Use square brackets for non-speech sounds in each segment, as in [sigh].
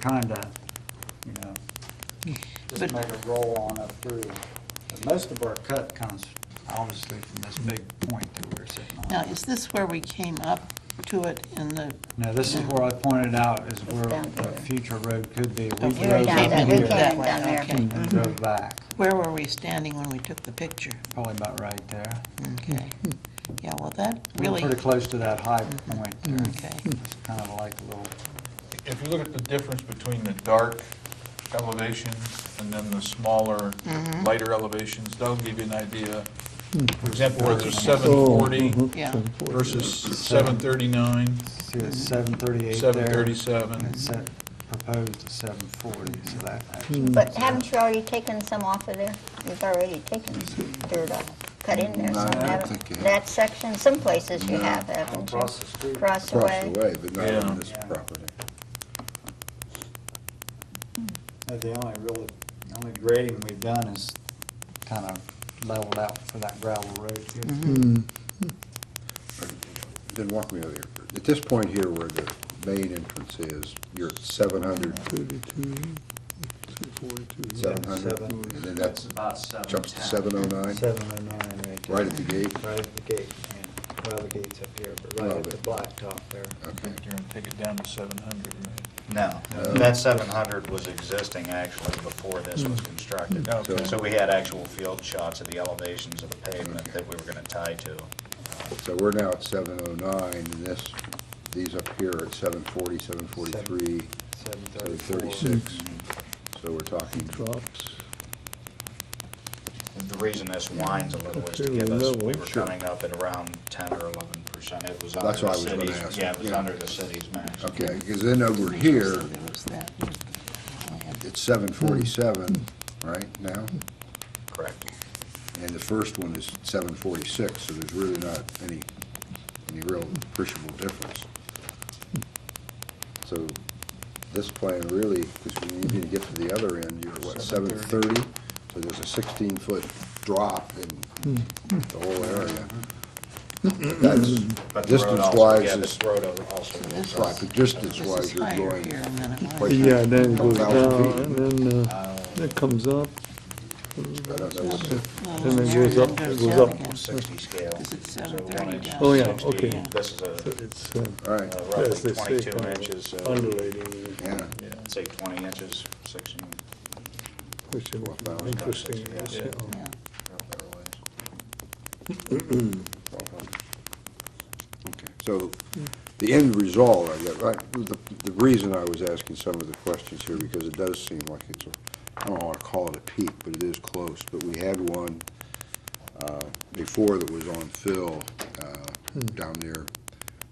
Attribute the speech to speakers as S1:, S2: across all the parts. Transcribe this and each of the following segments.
S1: kinda, you know, just make it roll on up through. But most of our cut comes obviously from this big point that we're sitting
S2: Now,
S1: on.
S2: is this where we came up to it in the,
S1: Now, this is where I pointed out is where
S3: down
S1: the
S3: here.
S1: future road could be. We
S2: Okay.
S3: We were
S1: drove
S3: down
S1: up
S3: there, we
S1: here
S3: came Mm-hmm.
S2: That
S3: in
S2: way,
S3: down there.
S2: okay.
S1: and then drove back,
S2: where were we standing when we took the picture?
S1: probably about right there.
S2: Okay. Yeah, well, that
S1: We were
S2: really,
S1: pretty close to that high point
S3: Mm-hmm.
S1: there.
S2: okay.
S1: It's kind of like a little,
S4: If you look at the difference between the dark elevations and then the smaller, lighter elevations, that'll give you an idea. For example, where there's seven
S5: Oh,
S4: forty
S5: mm-hmm.
S2: Yeah.
S4: versus seven thirty-nine,
S1: see, it's 738 there.
S4: seven thirty-seven.
S1: It's set, proposed to 740, so that actually.
S3: But haven't you already taken some off of there? You've already taken some dirt off, cut in there,
S5: No, I
S3: some
S5: don't
S3: haven't.
S5: think you have.
S3: That section, some places you have, haven't you?
S1: Across the street.
S3: Cross the
S5: across
S3: way.
S5: the way, but not
S4: Yeah.
S5: on this
S1: Yeah.
S5: property.
S1: Uh, The only really, the only grading we've done is kind of leveled out for that gravel road
S5: Mm-hmm.
S1: here.
S5: Then walk me over here. At this point here where the main entrance is, you're at seven hundred,
S6: 32, 42.
S5: seven hundred,
S1: seven.
S5: and then that's,
S1: about seven.
S5: jumps to seven oh nine,
S1: Seven oh nine right there.
S5: right at the gate.
S1: Right at the gate, yeah. Well, the gate's up here, but right
S5: Well,
S1: at the
S5: but-
S1: blacktop there.
S5: Okay.
S4: You're gonna take it down to seven hundred, right?
S7: No, that 700 was existing actually before this
S5: Mm-hmm.
S7: was constructed.
S5: Okay.
S7: So we had actual field shots of the elevations of the pavement that we were going to tie to.
S5: So we're now at seven oh nine, and this, these up here are at seven forty, seven forty-three,
S1: Seven
S5: seven
S1: thirty-four.
S5: thirty-six.
S7: Mm-hmm.
S5: So we're talking. Drops.
S7: The reason this winds a little is to
S6: Fairly
S7: give us,
S6: level,
S7: we were
S5: sure.
S7: coming up at around 10 or 11 percent. It was
S5: That's
S7: under the
S5: what I was gonna ask.
S7: city's, yeah, it was
S5: Yeah.
S7: under the city's maximum.
S5: Okay, because then over here,
S2: There was that.
S5: it's seven forty-seven, right now?
S7: Correct.
S5: And the first one is seven forty-six, so there's really not any, any real appreciable difference. So this plan really, because when you get to the other end, you're what, seven thirty? So there's a sixteen-foot drop in the whole area. That's,
S7: But the road also-
S5: distance-wise
S7: Yeah,
S5: is,
S7: this road also.
S2: This
S5: right, but
S2: This is
S5: distance-wise, you're
S2: higher
S5: going,
S2: here, and then it
S5: Wait.
S2: was.
S6: Yeah, then it goes
S5: 1,000 feet.
S6: down, and then, uh, it comes up,
S5: I don't know, what's-
S6: then it goes up, it goes up.
S7: 60 scale.
S2: Is it
S7: So one
S2: 730
S7: inch
S2: down?
S6: Oh, yeah,
S7: 60,
S6: okay.
S7: This is a
S6: it's uh,
S5: all
S7: Uh,
S5: right,
S6: Yes,
S7: roughly
S6: they say
S7: 22
S6: kind of
S7: inches, uh, so,
S6: undulating,
S5: yeah,
S7: yeah, say 20 inches, 16,
S6: which is uh, interesting.
S7: Yeah.
S2: Yeah.
S5: So the end result, I got, right, the, the reason I was asking some of the questions here, because it does seem like it's a, I don't wanna call it a peak, but it is close, but we had one, uh, before that was on Phil, uh, down near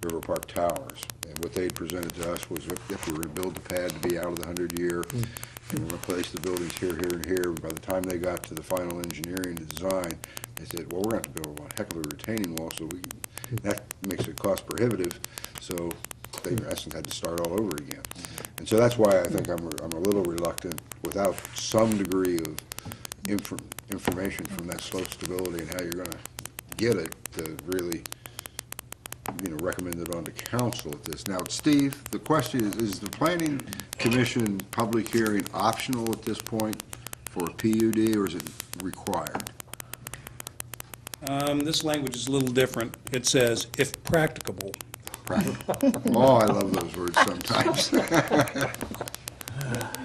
S5: River Park Towers. And what they presented to us was if if we rebuild the pad to be out of the hundred year, and replace the buildings here, here, and here, by the time they got to the final engineering and design, they said, well, we're gonna have to build a heck of a retaining wall, so we, that makes it cost prohibitive, so they, in essence, had to start all over again. And so that's why I think I'm, I'm a little reluctant, without some degree of infor- information from that slope stability and how you're gonna get it, to really, you know, recommend it on to council at this. Now, Steve, the question is, is the planning commission public hearing optional at this point for a PUD, or is it required?
S8: Um, This language is a little different. It says, "if practicable."
S5: Oh, I love those words sometimes. [laughs]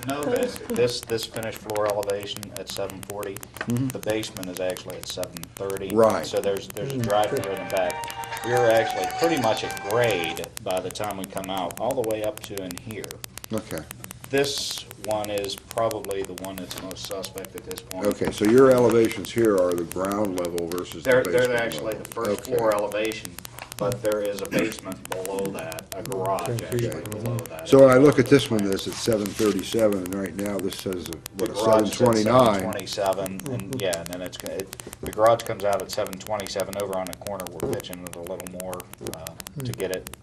S7: No, this, this, this finished floor elevation at seven forty, the basement is actually at seven thirty.
S5: Mm-hmm. Right.
S7: So there's, there's a drive-through in the back. We're actually pretty much at grade by the time we come out, all the way up to in here.
S5: Okay,
S7: This one is probably the one that's most suspect at this point.
S5: okay, so your elevations here are the ground level versus the
S7: They're,
S5: basement
S7: they're actually
S5: level.
S7: the first
S5: Okay.
S7: floor elevation, but there is a basement below that, a garage actually below that.
S5: So when I look at this one, this is seven thirty-seven, and right now this says, uh,
S7: The
S5: what,
S7: garage
S5: seven
S7: is at
S5: twenty-nine?
S7: 727, and, yeah, and then it's, gonna- it- the garage comes out at seven twenty-seven, over on the corner, we're pitching it a little more, uh, to get it,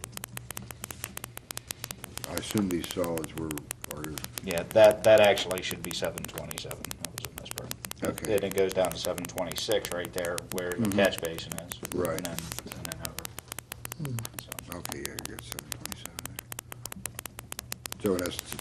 S5: I assume these solids were, are your
S7: yeah, that, that actually should be seven twenty-seven, that was a misprint.
S5: Okay. Mm-hmm.
S7: Then it goes down to seven twenty-six right there, where the catch basin is.
S5: Right.
S7: And
S5: Hmm.
S7: then, and then over. So,
S5: Okay, yeah, you got seven twenty-seven there. So in essence,